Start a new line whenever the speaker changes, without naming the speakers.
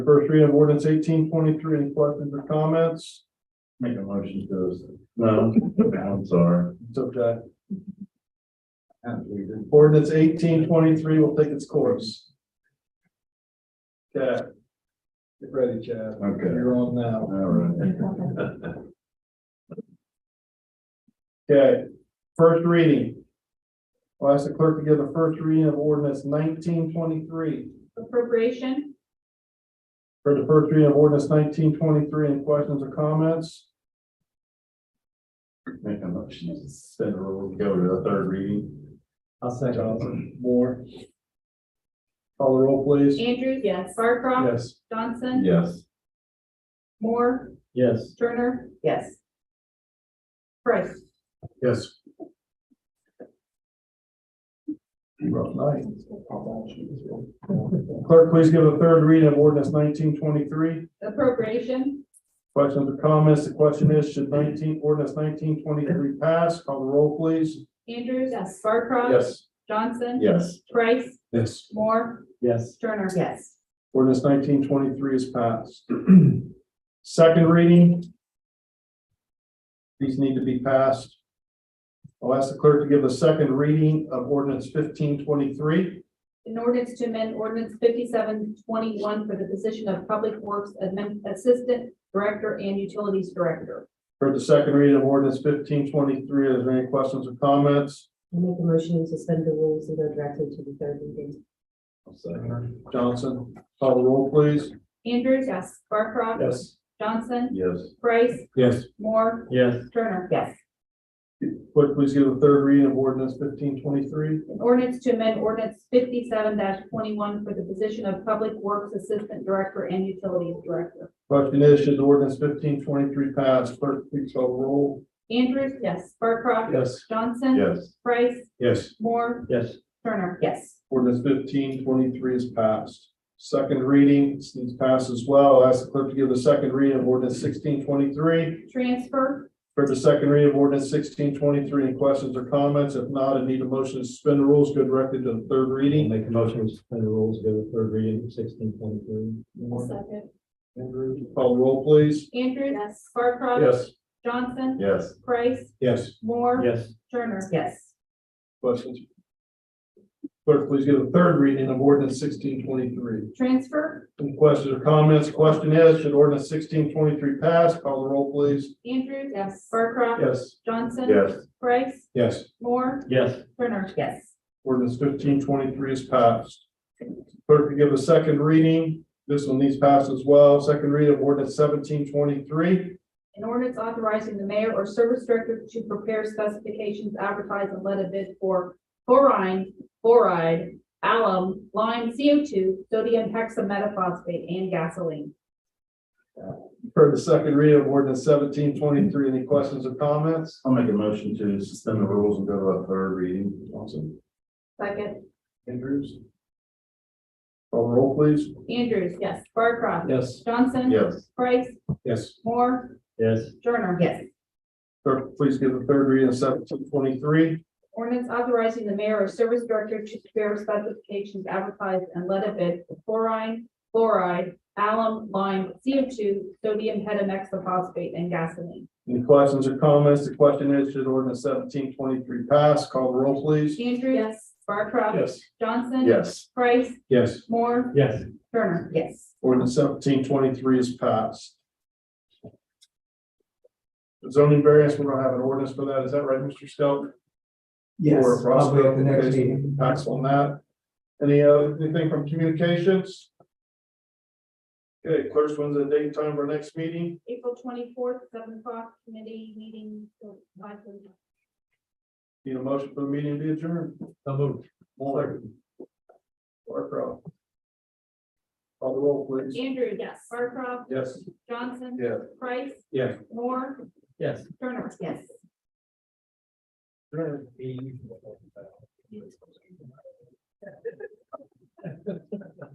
First reading of ordinance eighteen twenty-three, any questions or comments? Make a motion to. No, I'm sorry. It's okay. Ordinance eighteen twenty-three will take its course. Okay. Get ready, Chad.
Okay.
You're on now.
All right.
Okay, first reading. I'll ask the clerk to give the first reading of ordinance nineteen twenty-three.
Appropriation,
For the first reading of ordinance nineteen twenty-three, any questions or comments?
Make a motion to suspend the rules, go to the third reading.
I'll second. Moore. Call the roll, please.
Andrews. Yes. Barcroft.
Yes.
Johnson.
Yes.
Moore.
Yes.
Turner. Yes. Price.
Yes. Clerk, please give a third reading of ordinance nineteen twenty-three.
Appropriation,
Questions or comments? The question is, should nineteen, ordinance nineteen twenty-three pass? Call the roll, please.
Andrews. Yes. Barcroft. Johnson.
Yes.
Price.
Yes.
Moore.
Yes.
Turner. Yes.
Ordinance nineteen twenty-three is passed. Second reading. These need to be passed. I'll ask the clerk to give the second reading of ordinance fifteen twenty-three.
An ordinance to amend ordinance fifty-seven twenty-one for the position of Public Works Admin Assistant Director and Utilities Director.
Heard the second reading of ordinance fifteen twenty-three. Are there any questions or comments?
I make a motion to suspend the rules and go directly to the third reading.
Johnson, call the roll, please.
Andrews. Yes. Barcroft. Johnson.
Yes.
Price.
Yes.
Moore.
Yes.
Turner.
Yes.
Clerk, please give the third reading of ordinance fifteen twenty-three.
An ordinance to amend ordinance fifty-seven twenty-one for the position of Public Works Assistant Director and Utilities Director.
Question is, should ordinance fifteen twenty-three pass? Clerk, please call the roll.
Andrews, yes. Barcroft.
Yes.
Johnson.
Yes.
Price.
Yes.
Moore.
Yes.
Turner.
Yes.
Ordinance fifteen twenty-three is passed. Second reading, this needs passed as well. I'll ask the clerk to give the second reading of ordinance sixteen twenty-three.
Transfer.
For the second reading of ordinance sixteen twenty-three, any questions or comments? If not, I need a motion to suspend the rules, go directly to the third reading.
Make a motion to suspend the rules, go to third reading, sixteen point three.
Second.
Andrew, Call the roll, please.
Andrews. Yes. Barcroft. Johnson.
Yes.
Price.
Yes.
Moore.
Yes.
Turner.
Yes.
Questions? Clerk, please give the third reading of ordinance sixteen twenty-three.
Transfer.
Any questions or comments? Question is, should ordinance sixteen twenty-three pass? Call the roll, please.
Andrews. Yes. Barcroft.
Yes.
Johnson.
Yes.
Price.
Yes.
Moore.
Yes.
Turner.
Yes.
Ordinance fifteen twenty-three is passed. Clerk will give a second reading. This one needs passed as well. Second reading of ordinance seventeen twenty-three.
An ordinance authorizing the mayor or service director to prepare specifications, advertise, and let a bid for chlorine, fluoride, alum, lime, CO2, sodium hexametaphosphate, and gasoline.
Heard the second reading of ordinance seventeen twenty-three. Any questions or comments?
I'll make a motion to suspend the rules and go to a third reading. Awesome.
Second,
Andrews? Call the roll, please.
Andrews, yes. Barcroft.
Yes.
Johnson.
Yes.
Price.
Yes.
Moore.
Yes.
Turner.
Yes.
Clerk, please give the third reading of seventeen twenty-three.
Ordinance authorizing the mayor or service director to prepare specifications, advertise, and let a bid for chlorine, fluoride, alum, lime, CO2, sodium hexametaphosphate, and gasoline.
Any questions or comments? The question is, should ordinance seventeen twenty-three pass? Call the roll, please.
Andrews. Yes. Barcroft. Johnson.
Yes.
Price.
Yes.
Moore.
Yes.
Turner.
Yes.
Ordinance seventeen twenty-three is passed. Zoning variance, we're gonna have an ordinance for that, is that right, Mr. Stelk?
Yes,
Or
probably
Roscoe,
at the next
based
meeting.
Pass on that. Any, uh, anything from communications? Okay, clerk's one's the date and time for next meeting.
April twenty-fourth, seven o'clock, committee meeting. uh, five thirty.
Need a motion for the meeting to be adjourned.
So moved.
Barcroft. Call the roll, please.
Andrew. Yes. Barcroft.
Yes.
Johnson.
Yeah.
Price.
Yeah.
Moore.
Yes.
Turner.
Yes.
Be-